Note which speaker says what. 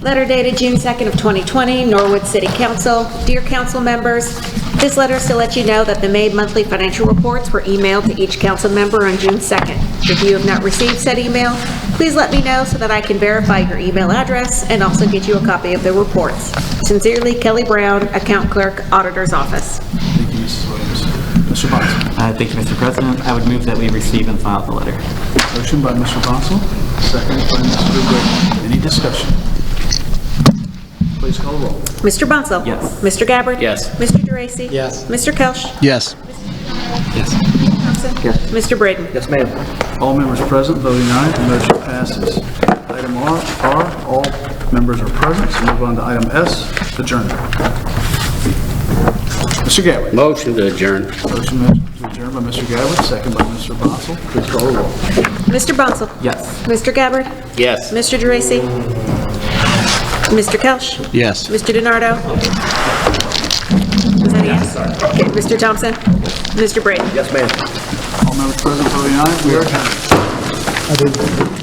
Speaker 1: Letter dated June 2nd of 2020, Norwood City Council. Dear council members, this letter is to let you know that the May monthly financial reports were emailed to each council member on June 2nd. If you have not received said email, please let me know so that I can verify your email address and also get you a copy of the reports. Sincerely, Kelly Brown, Account Clerk, Auditor's Office.
Speaker 2: Thank you, Mrs. Williams. Mr. Bonzo.
Speaker 3: Uh, Thank you, Mr. President. I would move that we receive and file the letter.
Speaker 2: Motion by Mr. Bonzo, second by Mr. Britton. Any discussion? Please call the roll.
Speaker 1: Mr. Bunzel?
Speaker 3: Yes.
Speaker 1: Mr. Gabbard?
Speaker 3: Yes.
Speaker 1: Mr. Dracy?
Speaker 4: Yes.
Speaker 1: Mr. Kelch?
Speaker 4: Yes.
Speaker 3: Yes.
Speaker 1: Thompson?
Speaker 4: Yes.
Speaker 1: Mr. Braden?
Speaker 4: Yes, ma'am.
Speaker 2: All members present voting aye, the motion passes. Item R, R, all members are present, so move on to item S, adjournment. Mr. Gabbard.
Speaker 5: Motion to adjourn.
Speaker 2: Motion to adjourn by Mr. Gabbard, second by Mr. Bonzo. Please call the roll.
Speaker 1: Mr. Bunzel?
Speaker 3: Yes.
Speaker 1: Mr. Gabbard?
Speaker 5: Yes.
Speaker 1: Mr. Geraci? Mr. Kelch?
Speaker 4: Yes.
Speaker 1: Mr. DiNardo? Was that a yes? Okay, Mr. Thompson? Mr. Brady?
Speaker 2: All members present voting aye, we are adjourned.